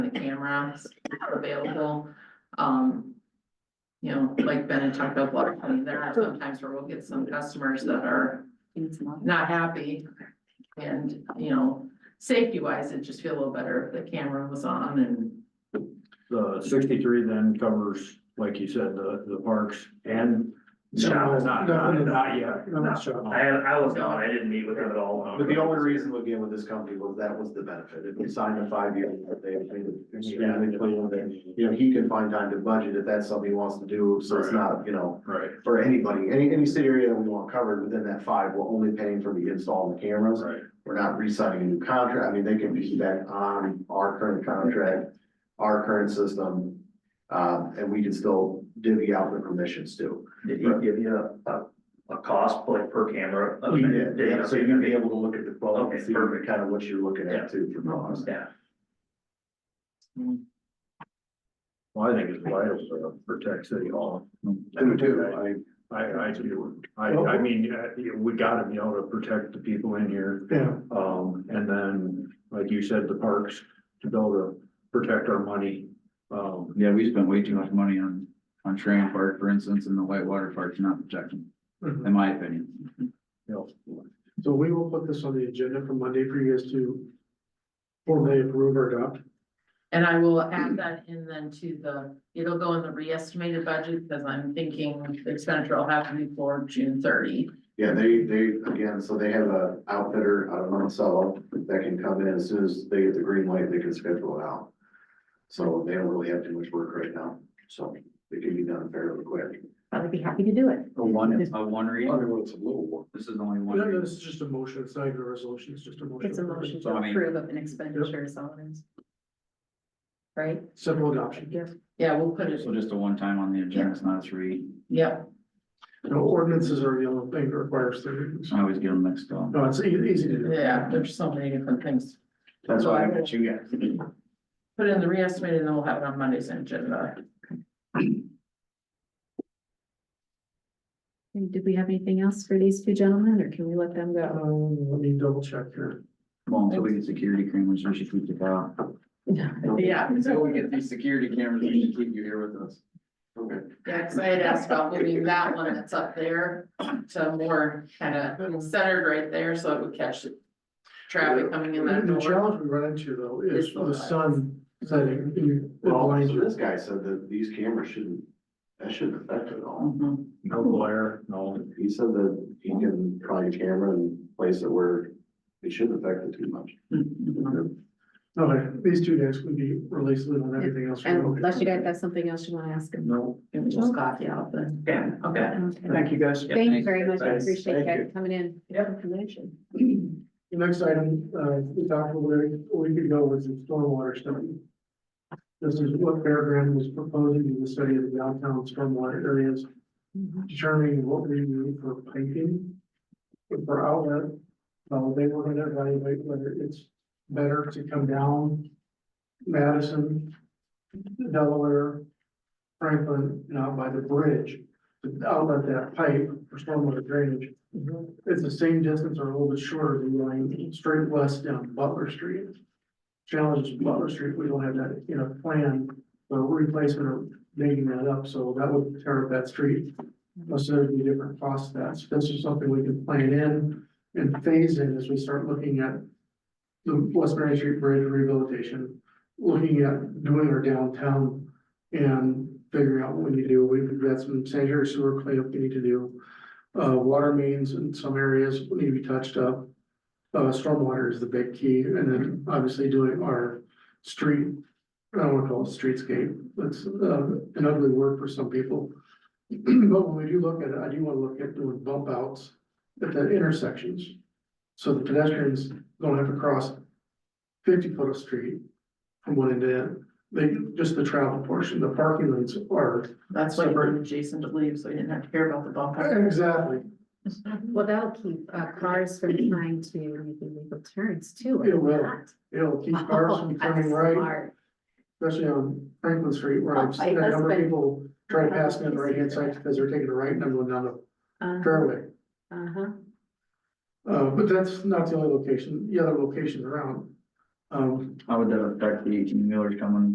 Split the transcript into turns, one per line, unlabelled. rounds available, um. You know, like Ben and talked about, Water County, there are sometimes where we'll get some customers that are not happy. And, you know, safety wise, it'd just feel a little better if the camera was on and
The sixty-three then covers, like you said, the, the parks and.
No,
Not,
no,
not,
no.
not yet.
No, not sure.
I, I was gone, I didn't meet with him at all.
But the only reason again with this company was that was the benefit. If we signed a five-year, they made it extremely clear that, you know, he can find time to budget if that's something he wants to do. So it's
Right.
not, you know,
Right,
for anybody, any, any city area that we want covered within that five, we're only paying for the install of the cameras.
right.
We're not re-signing a new contract. I mean, they can be back on our current contract, our current system. Um, and we can still divvy out the permissions too.
Did he give you a, a, a cost like per camera?
Oh,
Yeah, so you'd be able to look at the quote and
Okay,
see
perfect.
kind of what you're looking at too for cost.
Yeah,
Well, I think it's vital to protect city hall.
Do too.
I, I do. I, I mean, uh, we gotta be able to protect the people in here.
Yeah.
Um, and then, like you said, the parks, to be able to protect our money. Um,
Yeah, we spent way too much money on, on Tryon Park, for instance, and the Whitewater Park's not protecting,
Mhm.
in my opinion.
you know,
So we will put this on the agenda for Monday for you guys to formally approve or adopt.
And I will add that in then to the, it'll go in the reestimated budget, because I'm thinking the expenditure will have to be for June thirty.
Yeah, they, they, again, so they have a outfitter out of Monticello that can come in as soon as they get the green light, they can schedule it out. So they don't really have too much work right now, so it can be done fairly quick.
I would be happy to do it.
A one, a one read,
well, it's a little work.
this is only one.
No, no,
read.
this is just a motion, it's not even a resolution, it's just a motion.
It's a motion to
So, I mean-
approve of an expenditure, is all it is. Right?
Simple adoption.
Yes.
Yeah, we'll put it,
So just a one time on the agenda, it's not a three,
yeah,
No ordinances are a yellow thing that requires three readings.
I always get them mixed up.
No, it's ea- easy to do.
yeah, there's so many different things.
That's
So
why
I
I
will-
met you guys.
Put it in the reestimated, and then we'll have it on Monday's agenda.
And did we have anything else for these two gentlemen, or can we let them go?
Um, let me double check here.
Well, until we get security cameras, we should keep the car.
Yeah.
Until we get these security cameras, we should keep you here with us.
Okay.
Yeah, cause I had asked about moving that one that's up there to more kind of centered right there, so it would catch the traffic coming in that
The
door.
challenge we run into though is
Is the
the
lights.
sun setting. you- it
Well,
blinds
so
you.
this guy said that these cameras shouldn't, that shouldn't affect it at all.
Mhm.
no glare, no,
He said that he can try a camera and place it where it shouldn't affect it too much.
Okay, these two days would be released on everything else.
And unless you guys have something else you want to ask them.
no.
It was just coffee out then.
yeah.
Okay.
Okay.
you guys.
Thank you very much. I
Thanks.
appreciate
Thank
you
you.
guys coming in. Information.
The next item, uh, we talked a little, we could go with the stormwater study. This is what Fairground was proposing in the study of the downtown stormwater areas, determining what we need for piping. For outlet, uh, they were gonna evaluate whether it's better to come down Madison, Delaware, Franklin, and out by the bridge. to Outlet that pipe for stormwater drainage it's the same distance or a little bit shorter than going straight west down Butler Street. Challenge is Butler Street, we don't have that in our plan, but replacement of making that up, so that would tear up that street. Plus there'd be different costs, that's, this is something we can plan in and phase in as we start looking at the West Main Street Bridge rehabilitation, looking at doing our downtown and figuring out what we need to do. We've got some sanitary sewer cleanup we need to do. Uh, water mains in some areas need to be touched up. Uh, stormwater is the big key, and then obviously doing our street, I don't wanna call it streetscape, that's, uh, an ugly word for some people. But when we do look at it, I do wanna look at doing bump outs at the intersections. So the pedestrians don't have to cross fifty foot of street from one end to end. They, just the travel portion, the parking lanes are.
That's why we're Jason to leave, so we didn't have to hear about the bump.
Exactly.
Well, that'll keep uh, cars from trying to make illegal turns too. Oh,
It will. It'll keep cars from turning right, especially on Franklin Street where
Oh,
I've
my
seen a number of
husband-
people try to pass me on the right hand side because they're taking a right and I'm going down the fairway.
Uh-huh.
Uh, but that's not the only location, the other locations around. Um,
How would that affect the eighteen wheelers coming